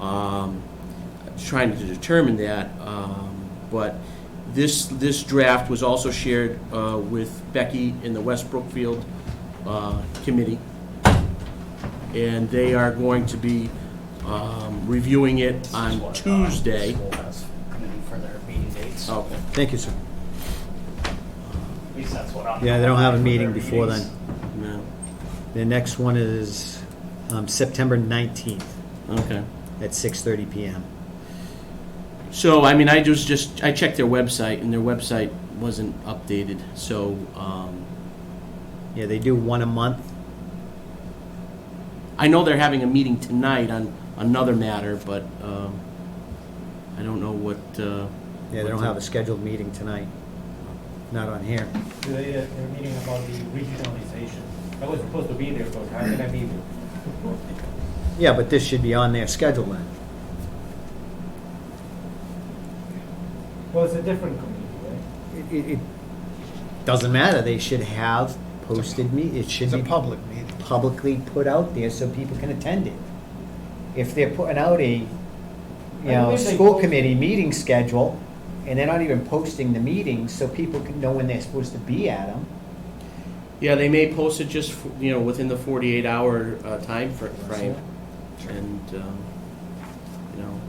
um, trying to determine that, um, but this, this draft was also shared uh, with Becky in the West Brookfield uh, Committee, and they are going to be um, reviewing it on Tuesday. School has committee for their meeting dates. Oh. At Okay. Thank you, sir. least that's what I'm. Yeah, they don't have a for meeting their before then. meetings. No. The next one is um, September 19th Okay. at 6:30 PM. So, I mean, I just, just, I checked their website, and their website wasn't updated, so, um, Yeah, they do one a month. I know they're having a meeting tonight on another matter, but, um, I don't know what, uh. Yeah, they what don't the- have a scheduled meeting tonight. Not on here. They, uh, They're meeting about the regionalization. I was supposed to be there, but how can I be there? Yeah, but this should be on their schedule then. Well, it's a different committee, right? It- It, it doesn't matter, they should have posted me, it should It's a be public meeting. publicly put out there so people can attend it. If they're putting out a, you know, believe they school post- committee meeting schedule, and they're not even posting the meetings so people can know when they're supposed to be at them, Yeah, they may post it just, f- you know, within the forty-eight hour, uh, time fr- frame, and, um, you know.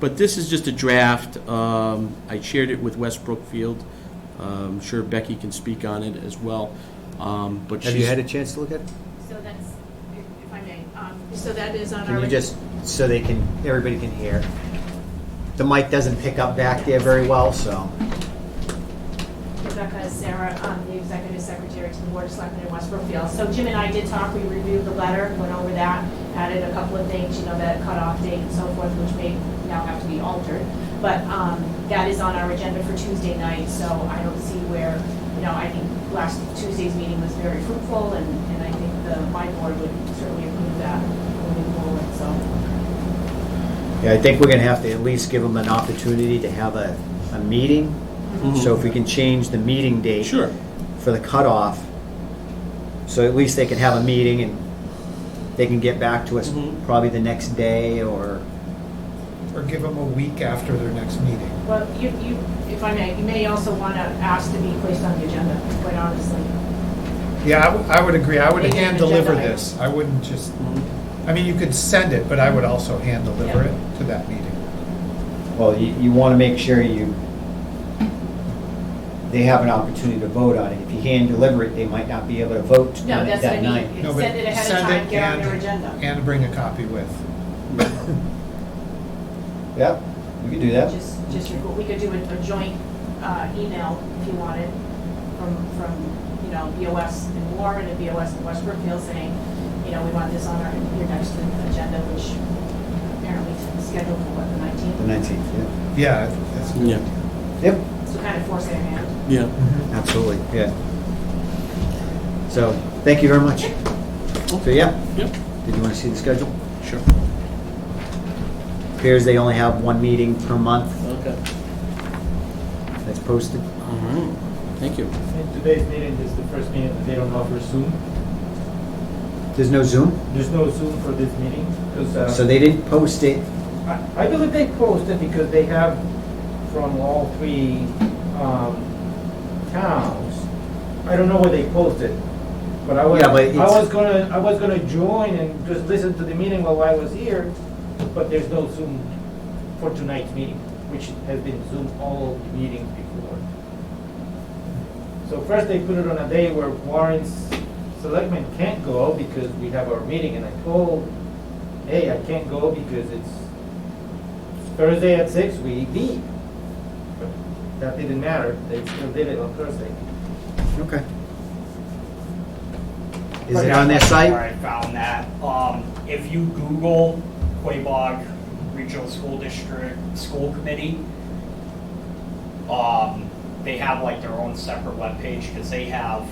But this is just a draft, um, I shared it with West Brookfield, I'm sure Becky can speak on it as well, um, but she's. Have you had a chance to look at it? So that's, if- if I may, um, so that is on our. Can you just, so they can, everybody can hear? The mic doesn't pick up back there very well, so. Rebecca is Sarah, um, the executive secretary to the Board of Selectmen in West Brookfield. So Jim and I did talk, we reviewed the letter, went over that, added a couple of things, you know, that cutoff date and so forth, which may now have to be altered. But um, that is on our agenda for Tuesday night, so I don't see where, you know, I think last Tuesday's meeting was very fruitful, and and I think the, my board would certainly approve that moving forward, so. Yeah, I think we're gonna have to at least give them an opportunity to have a, a meeting. Mhm. So if we can change the meeting date. Sure. For the cutoff, so at least they can have a meeting and they can get back to us Mhm. probably the next day or, Or give them a week after their next meeting. Well, you, you, if I may, you may also want to ask to be placed on the agenda, quite honestly. Yeah, I would- I would agree. I would Make it an hand deliver agenda item. this. I wouldn't just, Mhm. I mean, you could send it, but I would also hand deliver Mm-hmm. Yeah. it to that meeting. well, you, you wanna make sure you, they have an opportunity to vote on it. If you hand deliver it, they might not be able to vote No, on it that's what I that night. mean. No, but Send it ahead of send time, it get on and- your agenda. And bring a copy with. Yep, we can do that. Just, just, record- we could do a a joint uh, email if you wanted from, from, you know, BOS and Warren and BOS and West Brookfield saying, you know, we want this on our, your next agenda, which apparently is scheduled for what, the The 19th? nineteenth, yeah. Yeah, that's. Yeah, Yep. So kind of force their hand. yeah. Mhm. Absolutely, yeah. So, thank you very much. So, yeah, Yep, did you want to see the schedule? sure. Appears they only have one meeting per month Okay. that's posted. All right, thank you. And today's meeting is the first meeting that they don't offer Zoom. There's no Zoom, There's no Zoom for this meeting, Uh, uh, because so they didn't post it. I I believe they posted because they have from all three um, towns. I don't know where they posted, but I was, Yeah, but I it's- was gonna, I was gonna join and just listen to the meeting while I was here, but there's no Zoom for tonight's meeting, which has been Zoom all the meetings before. So first they put it on a day where Warren's selectmen can't go because we have our meeting, and I told, hey, I can't go because it's Thursday at six, we meet. But That didn't matter, they still did it on Thursday. Okay. Is it on their Where site? I found that, um, if you Google Quabog Regional School District School Committee, um, they have like their own separate webpage, because they have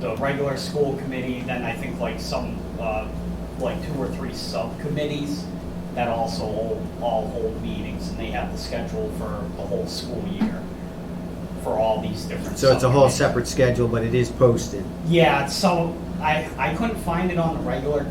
the regular school committee, then I think like some, uh, like two or three subcommittees that also hold- all hold meetings, and they have the schedule for the whole school year, for all these different So it's a whole subcommittees. separate schedule, but it is posted. Yeah, so I, I couldn't find it on the regular